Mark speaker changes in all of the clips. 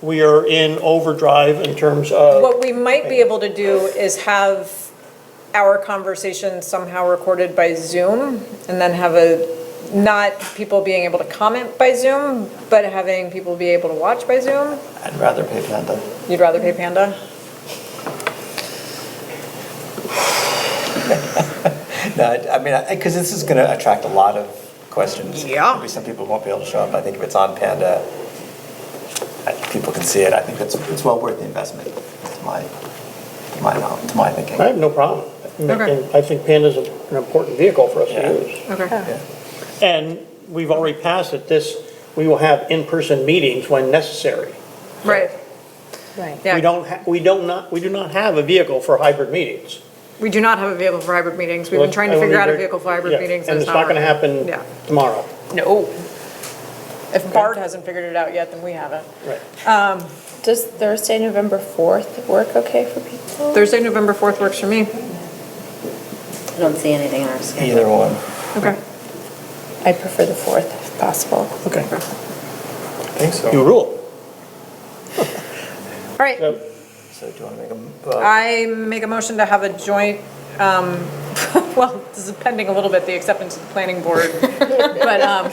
Speaker 1: we are in overdrive in terms of,
Speaker 2: What we might be able to do is have our conversation somehow recorded by Zoom and then have a, not people being able to comment by Zoom, but having people be able to watch by Zoom.
Speaker 3: I'd rather pay Panda.
Speaker 2: You'd rather pay Panda?
Speaker 3: No, I I mean, because this is going to attract a lot of questions.
Speaker 2: Yeah.
Speaker 3: Maybe some people won't be able to show up. I think if it's on Panda, I- people can see it. I think it's, it's well worth the investment, to my, to my, know- to my thinking.
Speaker 1: I have no problem. making- I think Panda's an important vehicle for us to use.
Speaker 2: Okay.
Speaker 1: And we've already passed it, this, we will have in-person meetings when necessary.
Speaker 2: Right.
Speaker 4: Right.
Speaker 1: We
Speaker 2: Yeah,
Speaker 1: don't, ha- we don't not, we do not have a vehicle for hybrid meetings.
Speaker 2: we do not have a vehicle for hybrid meetings. We've been trying to
Speaker 1: I
Speaker 2: figure out a
Speaker 1: wonder-
Speaker 2: vehicle for hybrid
Speaker 1: yeah,
Speaker 2: meetings.
Speaker 1: And it's not gonna happen
Speaker 2: Yeah.
Speaker 1: tomorrow.
Speaker 2: No. If Bard hasn't figured it out yet, then we haven't.
Speaker 1: Right.
Speaker 4: Does Thursday, November 4th work okay for people?
Speaker 2: Thursday, November 4th works for me.
Speaker 5: I don't see anything in our schedule.
Speaker 3: Either one.
Speaker 2: Okay.
Speaker 4: I prefer the 4th if possible.
Speaker 1: Okay.
Speaker 3: I think
Speaker 1: You
Speaker 3: so.
Speaker 1: rule.
Speaker 2: All right.
Speaker 1: So,
Speaker 3: So do you want to make a, uh,
Speaker 2: I make a motion to have a joint, um, well, this is pending a little bit, the acceptance of the planning board. But um,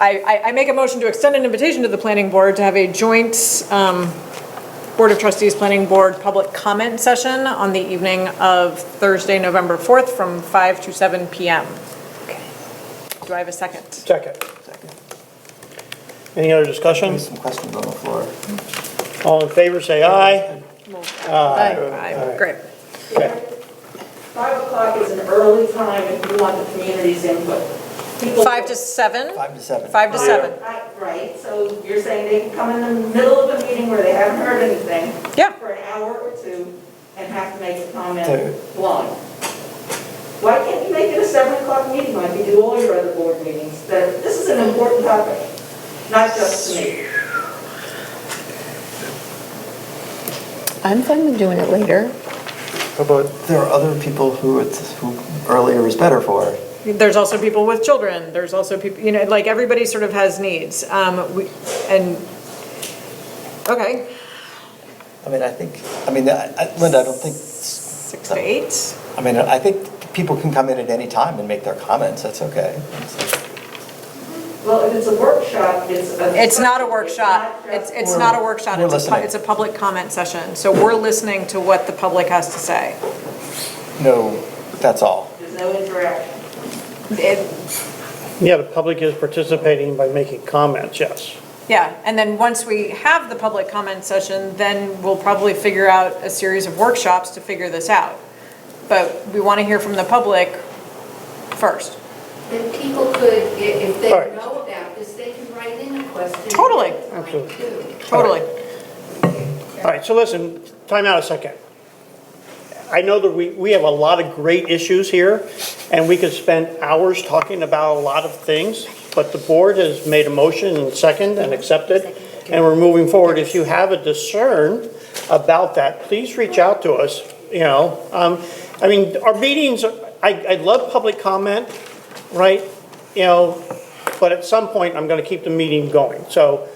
Speaker 2: I, I- I make a motion to extend an invitation to the planning board to have a joint um, Board of Trustees, Planning Board, public comment session on the evening of Thursday, November 4th, from 5 to 7 PM. Do I have a second?
Speaker 1: second.
Speaker 3: second?
Speaker 1: Any other
Speaker 3: There's
Speaker 1: discussions?
Speaker 3: some questions on the floor.
Speaker 1: All in favor, say aye.
Speaker 2: Aye. Great.
Speaker 1: Okay.
Speaker 6: Five o'clock is an early time if you want the community's input. People-
Speaker 2: Five to 7?
Speaker 3: Five to seven.
Speaker 2: 5 to 7.
Speaker 6: Right, Right, so you're saying they can come in the middle of a meeting where they haven't heard anything
Speaker 2: Yeah.
Speaker 6: for an hour or two and have to make a
Speaker 3: Dude.
Speaker 6: comment blind. Why can't you make it a seven o'clock meeting like you do all your other board meetings? That, this is an important topic, not just to me.
Speaker 4: I'm fine with doing it later.
Speaker 3: How about, there are other people who it's, who earlier is better for.
Speaker 2: There's also people with children, there's also people, you know, like, everybody sort of has needs, um, we, and, okay,
Speaker 3: I mean, I think, I mean, I- I- Linda, I don't think.
Speaker 2: six to eight,
Speaker 3: I mean, I think people can come in at any time and make their comments, that's okay.
Speaker 6: Well, if it's a workshop, it's a.
Speaker 2: it's not a workshop, it's, it's not a workshop,
Speaker 3: We're
Speaker 2: it's a, pu-
Speaker 3: listening.
Speaker 2: it's a public comment session, so we're listening to what the public has to say.
Speaker 3: No, that's all.
Speaker 6: There's no interaction.
Speaker 2: It,
Speaker 1: Yeah, the public is participating by making comments, yes.
Speaker 2: Yeah, and then once we have the public comment session, then we'll probably figure out a series of workshops to figure this out. But we want to hear from the public first.
Speaker 7: Then people could, i- if they
Speaker 1: All right.
Speaker 7: know about this, they can write in a question.
Speaker 2: Totally.
Speaker 1: Absolutely.
Speaker 2: Totally.
Speaker 1: All right, so listen, time out a second. I know that we, we have a lot of great issues here, and we could spend hours talking about a lot of things, but the board has made a motion and second and accepted, and we're moving forward. If you have a discern about that, please reach out to us, you know? Um, I mean, our meetings, are- I, I love public comment, right? You know, but at some point, I'm gonna keep the meeting going, so.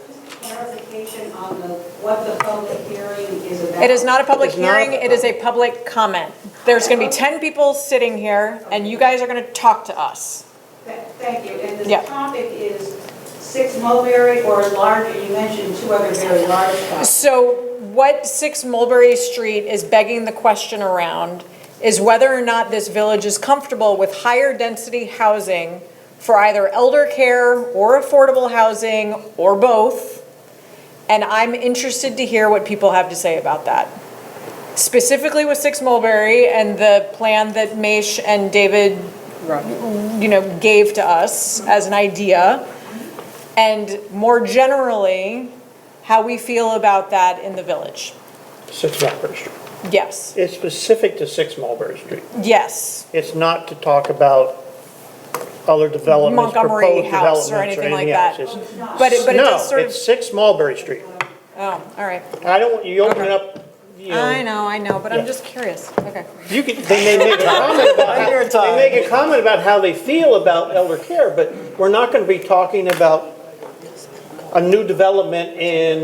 Speaker 8: clarification on the, what the public hearing is about.
Speaker 2: It is not a public
Speaker 1: It's not a-
Speaker 2: hearing, it is a public comment. There's going to be 10 people sitting here, and you guys are going to talk to us.
Speaker 8: Th- Thank you, and
Speaker 2: Yeah.
Speaker 8: the topic is six mulberry or larger, you mentioned two other very large ones.
Speaker 2: So what 6 Mulberry Street is begging the question around is whether or not this village is comfortable with higher density housing for either elder care or affordable housing or both. And I'm interested to hear what people have to say about that. Specifically with 6 Mulberry and the plan that Mesh and David, you know, gave to us as an idea. And more generally, how we feel about that in the village.
Speaker 1: Six Mulberry Street.
Speaker 2: Yes,
Speaker 1: It's specific to Six Mulberry Street.
Speaker 2: yes.
Speaker 1: It's not to talk about other developments,
Speaker 2: Montgomery
Speaker 1: proposed
Speaker 2: House
Speaker 1: developments
Speaker 2: or
Speaker 1: or
Speaker 2: anything like
Speaker 1: anything else.
Speaker 2: that. But it, but it does
Speaker 1: No,
Speaker 2: sort of,
Speaker 1: it's 6 Mulberry Street.
Speaker 2: oh, all right.
Speaker 1: I don't, want- you open it up, you
Speaker 2: I
Speaker 1: know,
Speaker 2: know, I know, but
Speaker 1: Yeah.
Speaker 2: I'm just curious. Okay.
Speaker 1: you could, they may make a comment about,
Speaker 3: Mind your
Speaker 1: how-
Speaker 3: time.
Speaker 1: they make a comment about how they feel about elder care, but we're not going to be talking about a new development in